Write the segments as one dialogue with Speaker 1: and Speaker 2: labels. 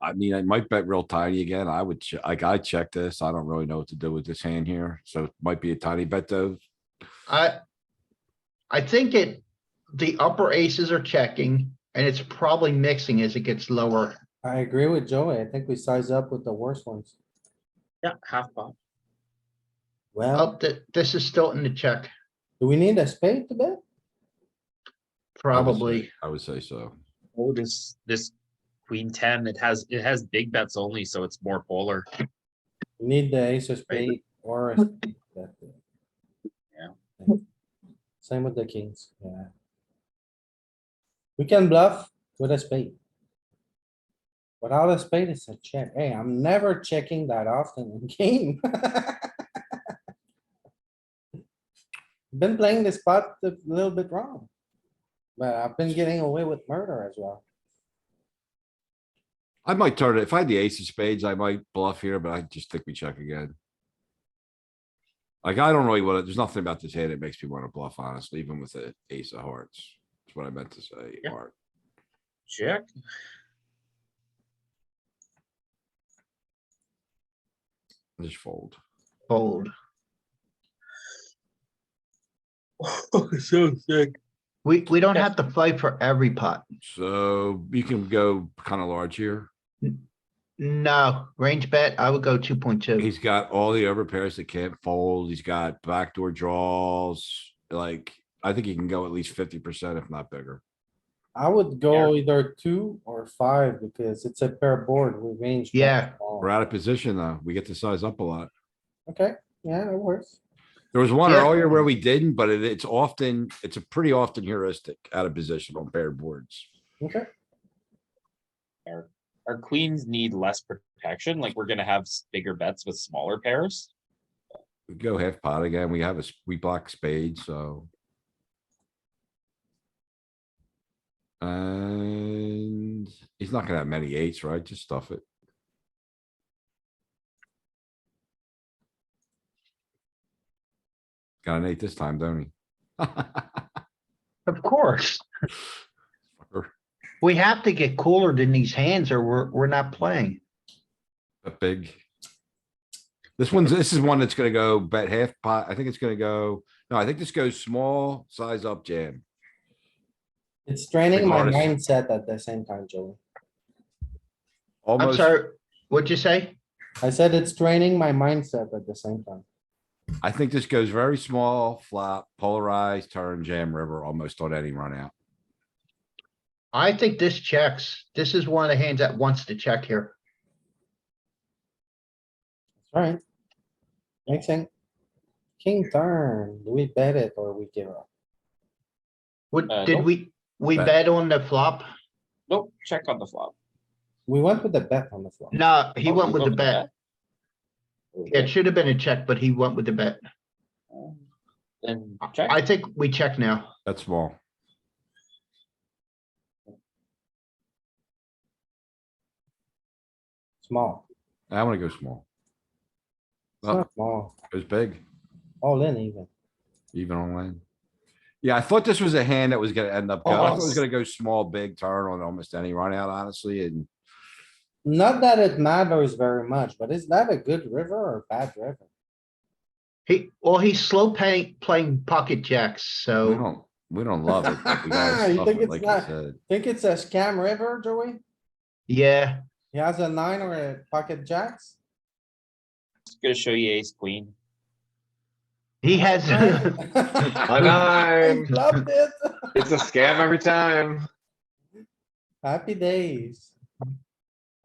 Speaker 1: I mean, I might bet real tiny again. I would, che- like, I check this. I don't really know what to do with this hand here, so it might be a tiny bet though.
Speaker 2: I, I think it, the upper aces are checking and it's probably mixing as it gets lower.
Speaker 3: I agree with Joey. I think we size up with the worst ones.
Speaker 4: Yeah, half pot.
Speaker 3: Well,
Speaker 2: Up that, Oh, this is still in the check,
Speaker 3: do we need a spade to bet?
Speaker 2: probably.
Speaker 1: I would say so.
Speaker 4: Oh, this, this queen ten, it has, it has big bets only, so it's more polar.
Speaker 3: We Need the ace of spade or a spade that day. Yeah. Same with the kings, yeah. We can bluff with a spade. Without a spade, it's a check. Hey, I'm never checking that often in game. Been playing this spot a little bit wrong. But I've been getting away with murder as well.
Speaker 1: I might turn it. If I had the ace of spades, I might bluff here, but I just think we check again. Like, I don't really want to, there's nothing about this hand that makes me want to bluff, honestly, even with the ace of hearts. That's what I meant to say,
Speaker 4: Yeah.
Speaker 1: Art.
Speaker 4: Check.
Speaker 1: Just fold.
Speaker 2: Fold.
Speaker 4: Oh, So sick.
Speaker 2: We, we don't have to fight for every pot.
Speaker 1: So you can go kind of large here.
Speaker 2: No, range bet, I would go two point two.
Speaker 1: He's got all the overpairs that can't fold. He's got backdoor draws. Like, I think he can go at least fifty percent, if not bigger.
Speaker 3: I would go either two or five because it's a pair board, we range. bet
Speaker 2: Yeah.
Speaker 3: small.
Speaker 1: We're out of position though. We get to size up a lot.
Speaker 3: Okay, yeah, that works.
Speaker 1: There was one
Speaker 2: Yeah.
Speaker 1: earlier where we didn't, but it- it's often, it's a pretty often heuristic out of position on paired boards.
Speaker 3: Okay,
Speaker 5: our queens need less protection, like we're gonna have s- bigger bets with smaller pairs.
Speaker 1: We Go half pot again. We have a, s- we block spades, so. And he's not gonna have many eights, right? Just stuff it. Got an eight this time, don't he?
Speaker 2: Of course, we have to get cooler than these hands or we're, we're not playing.
Speaker 1: A big. This one's, this is one that's gonna go bet half pot. I think it's gonna go, no, I think this goes small, size up jam.
Speaker 3: it's training my
Speaker 1: Regardless.
Speaker 3: mindset at the same time, Joey.
Speaker 2: I'm
Speaker 1: Almost,
Speaker 2: sorry, what'd you say?
Speaker 3: I said it's training my mindset at the same time.
Speaker 1: I think this goes very small, flop, polarized, turn, jam, river, almost on any run out.
Speaker 2: I think this checks. This is one of the hands that wants to check here.
Speaker 3: Alright. Makes sense. King turn, do we bet it or we give up?
Speaker 2: What,
Speaker 5: Uh,
Speaker 2: did
Speaker 5: nope.
Speaker 2: we, we
Speaker 1: Bet.
Speaker 2: bet on the flop?
Speaker 5: Nope, check on the flop.
Speaker 3: We went with the bet on the flop.
Speaker 2: No, he
Speaker 5: Oh,
Speaker 2: went
Speaker 5: you
Speaker 2: with
Speaker 5: go
Speaker 2: the bet. Yeah, It
Speaker 5: Okay,
Speaker 2: should have been a check, but he went with the bet.
Speaker 5: um, Then
Speaker 2: I
Speaker 5: check,
Speaker 2: think we check now.
Speaker 1: That's small.
Speaker 3: Small,
Speaker 1: I wanna go small.
Speaker 3: it's not small,
Speaker 1: Goes big,
Speaker 3: all in even.
Speaker 1: even on land. Yeah, I thought this was a hand that was gonna end
Speaker 3: Oh,
Speaker 1: up, go- I thought it was
Speaker 5: Almost.
Speaker 1: gonna go small, big turn on almost any run out, honestly, and
Speaker 3: Not that it matters very much, but is that a good river or bad river?
Speaker 2: He, well, he's slow paying, playing pocket jacks,
Speaker 1: we
Speaker 2: so
Speaker 1: don't, we don't love it. but we gotta
Speaker 3: You
Speaker 1: stuff
Speaker 3: think
Speaker 1: it,
Speaker 3: it's
Speaker 1: like you
Speaker 3: not-
Speaker 1: said.
Speaker 3: Think it's a scam river, Joey?
Speaker 2: yeah,
Speaker 3: He has a nine or a pocket jacks?
Speaker 5: just gonna show you ace queen.
Speaker 2: he has.
Speaker 3: I
Speaker 6: nine.
Speaker 3: Loved it.
Speaker 6: It's a scam every time.
Speaker 3: Happy days.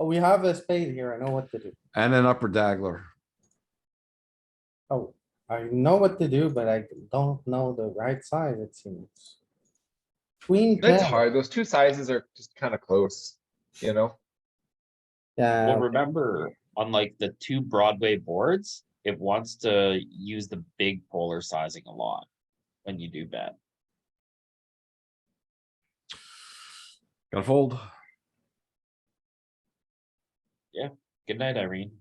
Speaker 3: Oh, We have a spade here. I know what to do.
Speaker 1: And an upper dagger.
Speaker 3: Oh, I know what to do, but I don't know the right side, it seems. Queen.
Speaker 6: That's
Speaker 3: jack.
Speaker 6: hard. Those two sizes are just kind of close, you know?
Speaker 3: Yeah,
Speaker 5: Well, remember, unlike the two Broadway boards, it wants to use the big polar sizing a lot when you do bet.
Speaker 1: Gotta fold.
Speaker 5: Good night, Irene.